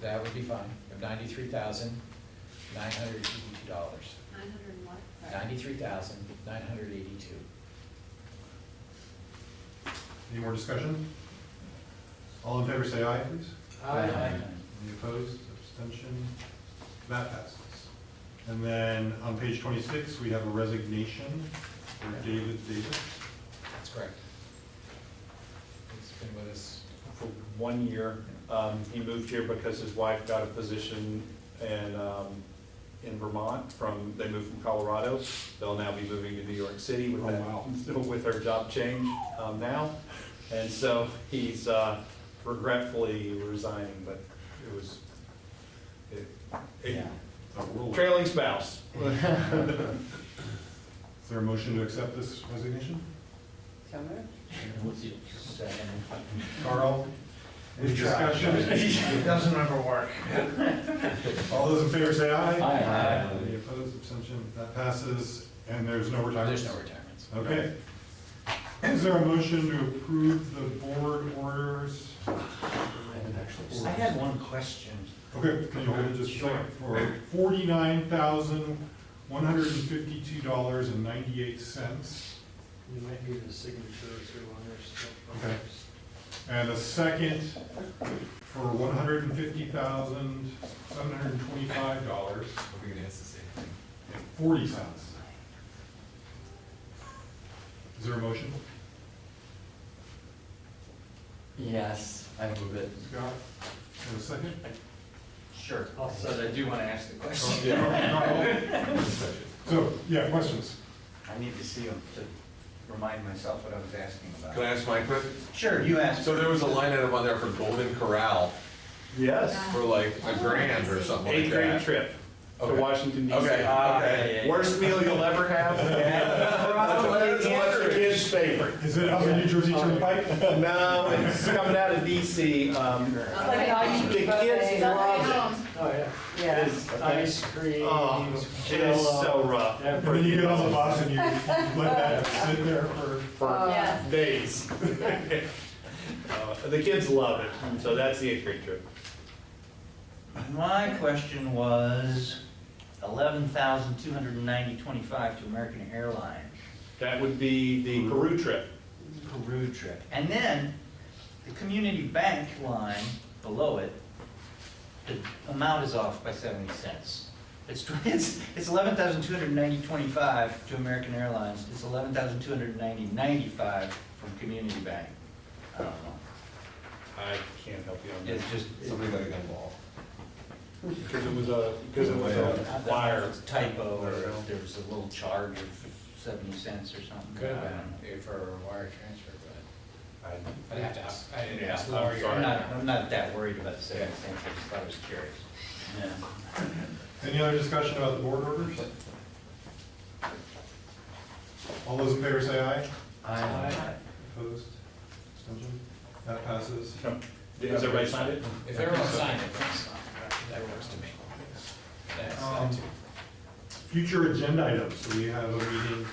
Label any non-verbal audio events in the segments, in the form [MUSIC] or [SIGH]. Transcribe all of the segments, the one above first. that would be fine, of ninety-three thousand, nine hundred eighty-two dollars. Nine hundred and what? Ninety-three thousand, nine hundred eighty-two. Any more discussion? All in favor, say aye, please. Aye. Any opposed, abstention? That passes. And then on page twenty-six, we have a resignation for David Davis. That's correct. He's been with us, for one year. Um, He moved here because his wife got a position in, um, in Vermont from, they moved from Colorado. They'll now be moving to New York City with Oh, that, [LAUGHS] with her job change um, now. And so he's uh, regretfully resigning, but it was, it- it- yeah. A whirlwind. trailing spouse. [LAUGHS] Is there a motion to accept this resignation? So moved. Second. Carl? Any We tried. [LAUGHS] discussion? It doesn't [LAUGHS] ever work. All those in favor, say aye. Aye. Any opposed, abstention? That passes, and there's no retirement. There's no retirements. Okay. Is there a motion to approve the board orders? I had one question. Okay, can you hold it just a second? For forty-nine thousand, one hundred and fifty-two dollars and ninety-eight cents. You might need the signatures or one or something. Okay. And a second for one hundred and fifty thousand, seven hundred and twenty-five dollars Are we gonna ask the same thing? and forty cents. Is there a motion? Yes, I move it. Scott, and a second? Sure. I'll So I do wanna ask the question. Oh, Yeah. [LAUGHS] So, yeah, questions? I need to see them to remind myself what I was asking Can about. I ask my quick? Sure, you asked. So there was a line item on there for Golden Corral Yes, for like a grand or something eighth like grade that. trip to Okay. Washington Ah, DC. Okay, okay. Worst meal you'll ever [LAUGHS] have. That's a- that's a Your kid's favorite. Is it on the New Jersey Turnpike? No, it's coming out of DC. um, It's like an The all-you-can-eat kids love Oh, yeah. it. Yeah. It's Ice cream. Oh, It is so rough. Yeah, And then you get on the bus and you let that sit there for, For Yes. days. [LAUGHS] Uh, The kids love it, so that's the eighth grade trip. My question was eleven thousand two hundred and ninety twenty-five to American Airlines That would be the Peru trip. Peru trip. And then the community bank line below it, the amount is off by seventy cents. It's, [LAUGHS] tw- it's, it's eleven thousand two hundred ninety twenty-five to American Airlines, it's eleven thousand two hundred ninety ninety-five from community bank. I don't know, I can't help you on it's that. just, Somebody got a gun ball. Because it was a, because it was I a don't know if wire. it's a typo or if there was a little charge of seventy cents or something. Could have I don't know. been for a wire transfer, but I- I'd have to ask, I didn't Yeah, ask I'm Lori. sorry. I'm not, I'm not that worried about the seventy cents, I just thought it was curious. Yeah. any other discussion about the board orders? All those in favor say aye. I, Opposed? Abstention? That passes. Has everybody signed it? If everyone signed it, that's fine. that works to me. That's, Um, that's Future agenda items, so we have a meeting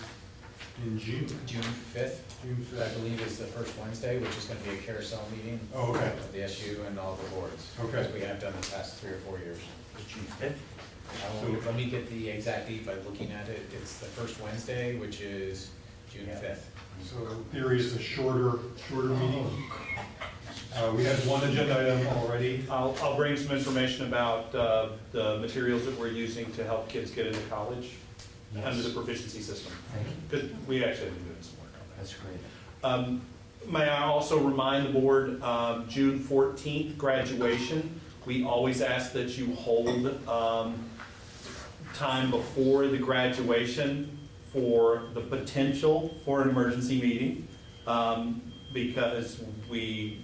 in June. June fifth. June that I fifth. believe is the first Wednesday, which is gonna be a carousel meeting Oh, okay. of the SU and all the boards. Okay. As we have done the past three or four years. was June fifth? I will, let me get the exact date by looking at it. It's the first Wednesday, which is June fifth. So in theory is a shorter, shorter meeting. Uh, we had one agenda item already. I'll, I'll bring some information about uh, the materials that we're using to help kids get into college under the proficiency system. Thank you. Because we actually have been doing some work on that. That's great. Um, May I also remind the board, um, June 14th, graduation. We always ask that you hold um, time before the graduation for the potential for an emergency meeting. um, Because we,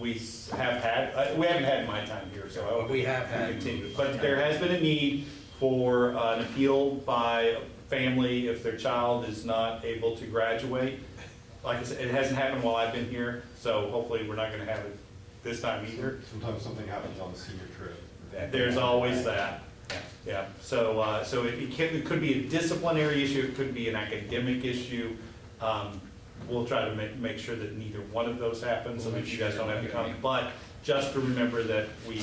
we have had, uh, we haven't had my time here, so I hope We have we had. continue. But there has been a need for uh, an appeal by a family if their child is not able to graduate. Like I said, it hasn't happened while I've been here, so hopefully we're not gonna have it this time either. Sometimes something happens on the senior trip. There's always that, Yeah. yeah. So, uh, so it it can, it could be a disciplinary issue, it could be an academic issue. Um, We'll try to make, make sure that neither one of those happens, so that you guys don't have to come. But just remember that we